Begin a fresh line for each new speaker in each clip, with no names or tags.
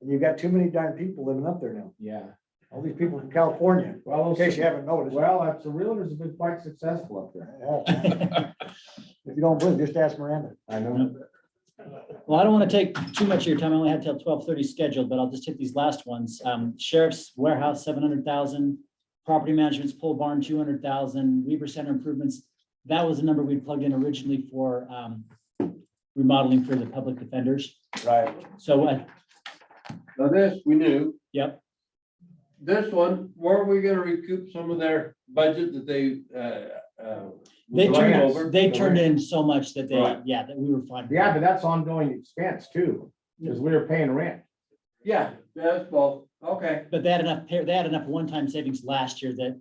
And you've got too many darn people living up there now.
Yeah.
All these people from California,
Well,
in case you haven't noticed.
well, that's- the realtors have been quite successful up there.
Yeah. If you don't believe, just ask Miranda.
I know.
Well, I don't want to take too much of your time. I only had till twelve thirty scheduled, but I'll just hit these last ones. Um, Sheriff's Warehouse, seven hundred thousand. Property Management's pole barn, two hundred thousand. Weaver Center improvements. That was the number we plugged in originally for, um, remodeling for the public defenders.
Right.
So, uh,
Now this, we knew,
yep,
this one, weren't we gonna recoup some of their budget that they, uh, uh?
they
was left
turned,
over?
they turned in so much that they,
Right.
yeah, that we were fine.
Yeah, but that's ongoing expense too, because we were paying rent.
Yeah, that's both, okay.
But they had enough, pa- they had enough one-time savings last year that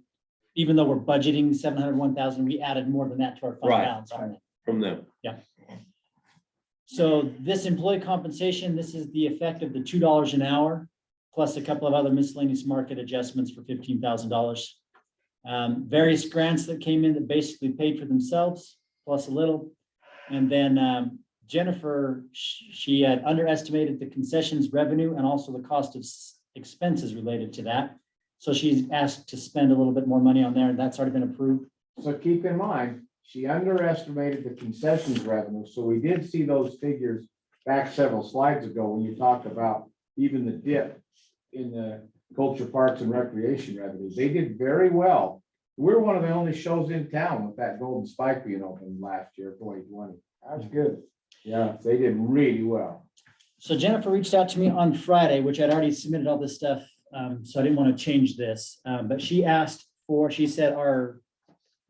even though we're budgeting seven hundred one thousand, we added more than that to our fund
Right.
balance on it.
From them.
So this employee compensation, this is the effect of the two dollars an hour, plus a couple of other miscellaneous market adjustments for fifteen thousand dollars. Um, various grants that came in that basically paid for themselves, plus a little. And then um, Jennifer, sh- she had underestimated the concessions revenue and also the cost of s- expenses related to that. So she's asked to spend a little bit more money on there, and that's already been approved.
So keep in mind, she underestimated the concessions revenue, so we did see those figures back several slides ago when you talked about even the dip in the culture parks and recreation revenues. They did very well. We're one of the only shows in town with that golden spike being opened last year, twenty twenty. That's good. Yeah, they did really well.
So Jennifer reached out to me on Friday, which I'd already submitted all this stuff, um, so I didn't want to change this. Um, but she asked for, she said our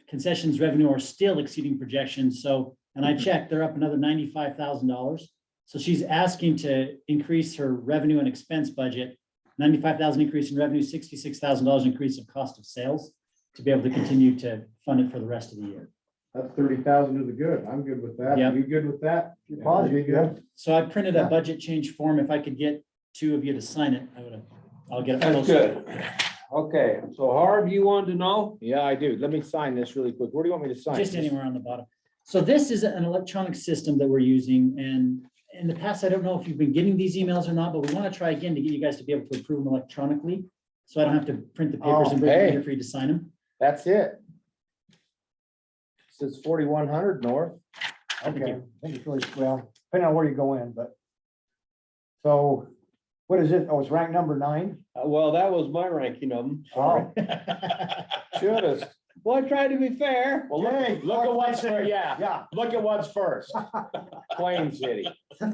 concessions revenue are still exceeding projections, so, and I checked, they're up another ninety-five thousand dollars. So she's asking to increase her revenue and expense budget, ninety-five thousand dollars increase in revenue, sixty-six thousand dollars increase of cost of sales to be able to continue to fund it for the rest of the year.
That's thirty thousand to the good. I'm good with that.
Yep.
You good with that?
If you're positive, you have,
So I printed a budget change form. If I could get two of you to sign it, I would, I'll get it.
That's
posted.
good. Okay, so Harv, you wanted to know?
Yeah, I do. Let me sign this really quick. Where do you want me to sign?
Just anywhere on the bottom. So this is an electronic system that we're using and in the past, I don't know if you've been getting these emails or not, but we want to try again to get you guys to be able to approve them electronically. So I don't have to print the papers and bring
Oh,
them
hey.
here for you to sign them.
That's it. Says forty-one hundred north.
okay, I think it's really, well, depending on where you go in, but. So, what is it? Oh, it's rank number nine?
Uh, Well, that was my ranking of them.
Oh,
Wow.
Should have.
Well, I tried to be fair.
Well, look, look at what's, fir- yeah,
Yeah,
look at what's first. Plain City.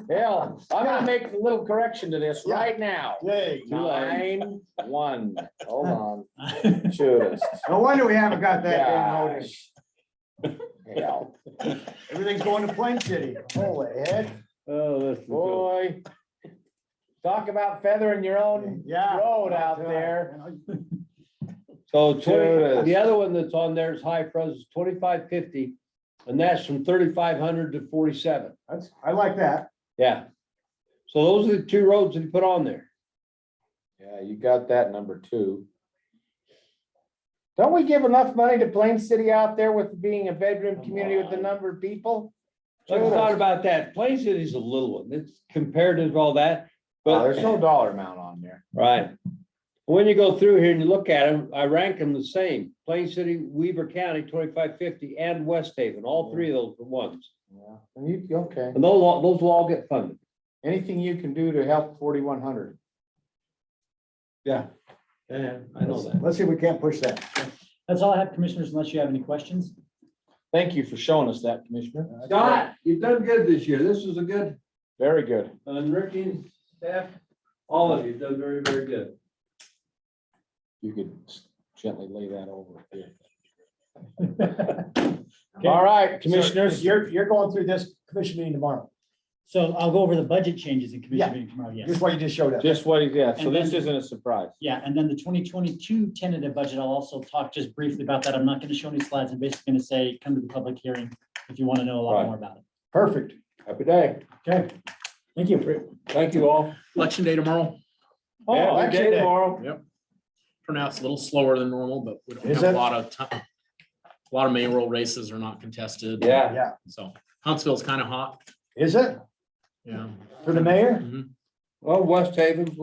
Hell, I'm gonna make a little correction to this right now.
yay.
Nine, one, hold on, should
No wonder we haven't got that day
have.
notice. Everything's going to Plain City. Holy heck.
Oh, that's.
Boy. Talk about feathering your own
Yeah.
road out there.
So
Sure
twenty,
is.
the other one that's on there is high pros, twenty-five fifty, and that's from thirty-five hundred to forty-seven,
That's, I like that.
yeah. So those are the two roads that he put on there.
Yeah, you got that number two. Don't we give enough money to Plain City out there with being a bedroom community with the number of people?
I
Sure.
thought about that, Plain City's a little one, it's comparative to all that,
Well, there's no
but,
dollar amount on there.
right. When you go through here and you look at them, I rank them the same, Plain City, Weaver County, twenty-five fifty, and West Haven, all three of those are ones.
Yeah. And you, okay,
And those, all- those will all get funded.
anything you can do to help forty-one hundred?
Yeah. Yeah, I know that.
Let's see if we can't push that.
That's all I have, commissioners, unless you have any questions.
Thank you for showing us that, Commissioner.
Scott, you've done good this year, this is a good
Very good.
And Ricky and staff, all of you done very, very good.
You could s- gently lay that over here. All right, Commissioners.
You're, you're going through this commission meeting tomorrow.
So I'll go over the budget changes in commission
Yeah.
meeting tomorrow, yes.
Just what you just showed us.
Just what, yeah, so
And
this
then-
isn't a surprise.
Yeah, and then the twenty twenty-two tentative budget, I'll also talk just briefly about that. I'm not gonna show any slides. I'm basically gonna say, come to the public hearing if you want to know a lot
Right.
more about it.
Perfect.
Happy day.
Okay.
Thank you.
Thank you all.
Election day tomorrow.
Oh,
Yeah,
election
day
day.
tomorrow.
Pronounced a little slower than normal, but we don't
Is
have
it?
a lot of time. A lot of mayoral races are not contested.
Yeah.
Yeah.
So Huntsville's kind of hot.
Is it
Yeah.
for the mayor?
Mhm.
Well, West Haven's